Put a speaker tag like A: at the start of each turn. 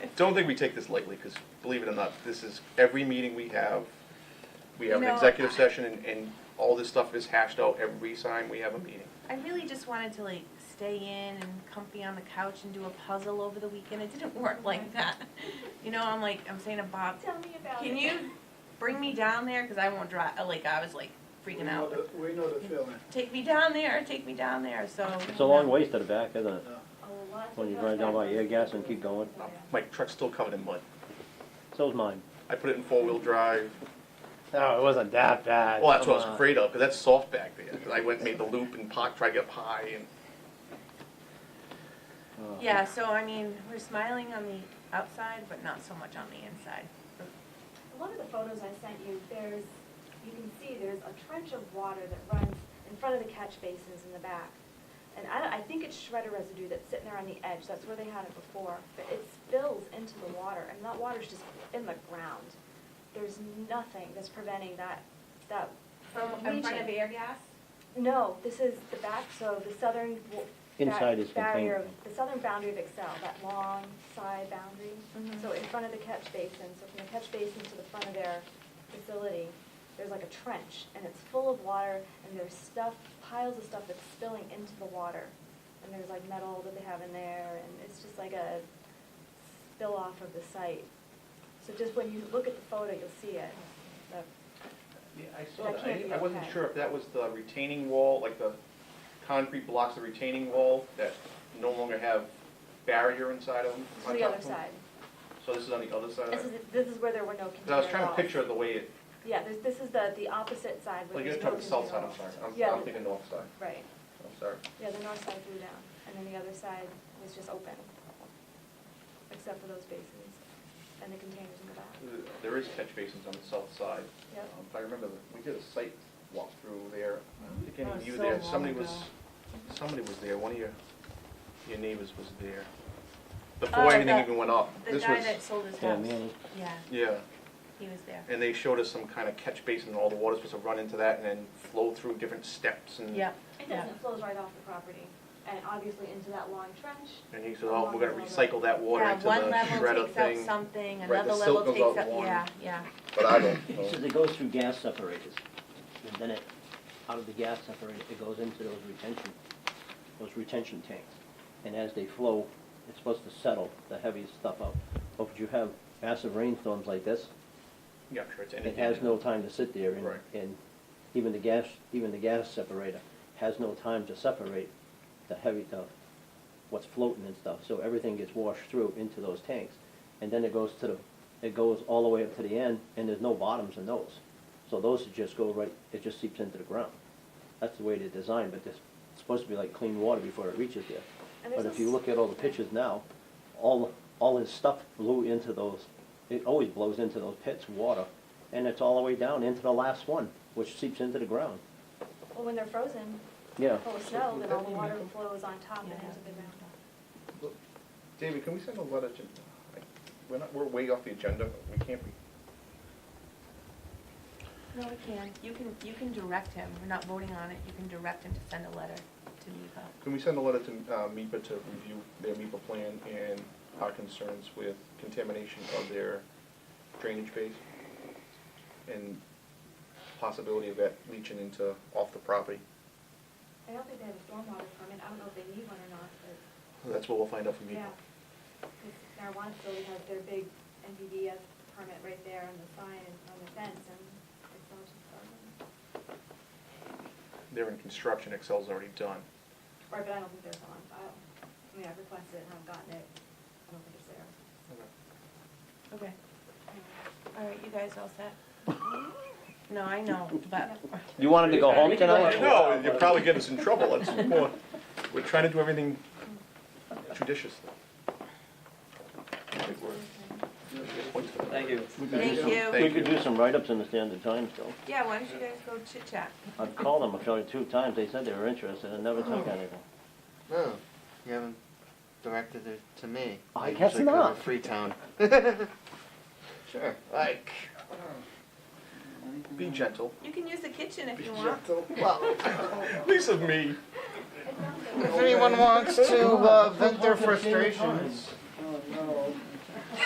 A: don't think we take this lightly, because believe it or not, this is, every meeting we have, we have an
B: No,
A: executive
B: I-
A: session, and, and all this stuff is hashed out every time we have a meeting.
B: I really just wanted to like stay in and comfy on the couch and do a puzzle over the weekend. It didn't work like that. You know, I'm like, I'm saying to Bob,
C: Tell me about it.
B: can you bring me down there? Cause I won't drive, like, I was like
D: We
B: freaking
D: know
B: out.
D: the- We know the feeling.
B: Take me down there, take me down there, so.
E: It's a long ways to the back, isn't it?
C: Oh, lots
E: When
C: of
E: you drive down by air gas and keep going.
C: Yeah.
A: My truck's still covered in mud.
E: So's mine.
A: I put it in four-wheel drive.
E: No, it wasn't that bad.
A: Well, that's what I
E: Come
A: was
E: on.
A: afraid of, because that's soft back there. 'Cause I went and made the loop and parked, tried to get up high, and
E: Oh.
B: Yeah, so I mean, we're smiling on the outside, but not so much on the inside.
C: A lot of the photos I sent you, there's, you can see there's a trench of water that runs in front of the catch basins in the back. And I, don't- I think it's shredder residue that's sitting there on the edge, that's where they had it before, but it spills into the water, and that water's just in the ground. There's nothing that's preventing that, that,
B: From,
C: in front of
B: air gas?
C: no, this is the back, so the southern. wa- that
E: Inside is
C: barrier
E: contained.
C: of- The southern boundary of Excel, that long side boundary.
B: Mhm.
C: So in front of the catch basin, so from the catch basin to the front of their facility, there's like a trench, and it's full of water, and there's stuff, piles of stuff that's spilling into the water. And there's like metal that they have in there, and it's just like a spill off of the site. So just when you look at the photo, you'll see it. But
A: Yeah, I saw
C: That
A: that. I
C: can't
A: didn't-
C: be
A: I wasn't
C: okay.
A: sure if that was the retaining wall, like the concrete blocks, the retaining wall that no longer have barrier inside of them.
C: This
A: on
C: is the
A: top
C: other
A: of them?
C: side.
A: So this is on the other side? of
C: This
A: it?
C: is, this is where there were no container
A: 'Cause I was trying to
C: walls.
A: picture the way it,
C: Yeah, there's, this is the, the opposite side
A: like,
C: with
A: you're
C: there's no
A: talking south side, I'm
C: container
A: sorry.
C: walls.
A: I'm-
C: Yeah,
A: I'm thinking north side.
C: right,
A: I'm sorry.
C: yeah, the north side blew down, and then the other side was just open, except for those basins and the containers in the back.
A: There is catch basins on the south side.
C: Yep.
A: Um, If I remember, we did a site walk through there. I don't think any
F: That
A: of
F: was
A: you
F: so
A: there.
F: long
A: Somebody was,
F: ago.
A: somebody was there. One of your, your neighbors was there. Before anything
B: the-
A: even went up.
B: Oh, The
A: This
B: guy
A: was-
B: that sold his
E: Yeah,
B: house.
E: man.
B: Yeah,
A: Yeah.
B: he was there.
A: And they showed us some kind of catch basin, and all the water's supposed to run into that and then flow through different steps and.
B: Yep.
C: It
B: Yeah.
C: does, it flows right off the property, and obviously into that long trench.
A: And he said, oh, we're gonna recycle that water
B: Yeah,
A: into the
B: one
A: shredder
B: level takes out
A: thing.
B: something,
A: Right,
B: another
A: the
B: level
A: silt goes
B: takes
A: out
B: up,
A: one.
B: yeah, yeah.
A: But I don't
E: He says it goes through gas separators, and then it, out of the gas separator, it goes into those retention, those retention tanks. And as they flow, it's supposed to settle the heavy stuff out. But if you have massive rainstorms like this,
A: Yeah, I'm sure it's anything.
E: it has no time to sit there, and,
A: Right.
E: and even the gas, even the gas separator has no time to separate the heavy, the, what's floating and stuff, so everything gets washed through into those tanks, and then it goes to the, it goes all the way up to the end, and there's no bottoms in those, so those just go right, it just seeps into the ground. That's the way they're designed, but it's supposed to be like clean water before it reaches there.
C: And
E: But
C: there's
E: if you
C: this-
E: look at all the pictures now, all, all his stuff blew into those, it always blows into those pits of water, and it's all the way down into the last one, which seeps into the ground.
C: Well, when they're frozen,
E: Yeah.
C: full of snow, then all the water flows on top and into the ground.
A: David, can we send a letter to, like, we're not, we're way off the agenda, we can't be.
B: No, we can. You can, you can direct him. We're not voting on it. You can direct him to send a letter to Mipa.
A: Can we send a letter to, uh, MIPA to review their MIPA plan and our concerns with contamination of their drainage base? And possibility of that leaching into, off the property?
C: I don't think they have a stormwater permit, I don't know if they need one or not, but.
A: That's what we'll find out from E
C: Yeah,
A: MIPA.
C: because marijuana facility has their big NPDS permit right there on the sign and on the fence, and it's all just garden.
A: They're in construction, Excel's already done.
C: Right, but I don't think there's one, I don't, I mean, I've requested it, and I haven't gotten it, I don't think it's there.
B: Okay. All right, you guys all set? No, I know, but
E: You wanted to go home tonight?
A: No, you'll probably get us in trouble, that's more, we're trying to do everything judiciously. Good work. Good points for that.
F: Thank you.
E: We could do
B: thank
E: some-
B: you.
A: Thank
E: We could
A: you.
E: do some write-ups in the Standard Times, though.
B: Yeah, why don't you guys go chit chat?
E: I've called them a few, two times, they said they were interested, and never
C: Oh.
E: took anything.
G: No, you haven't directed it to me.
E: Oh, I guess
G: usually go to
E: not.
G: Freetown. sure, like.
A: Be gentle.
B: You can use the kitchen if you want.
G: Well,
A: Lisa, me.
G: if anyone wants to uh, vent their frustrations.
D: No, no.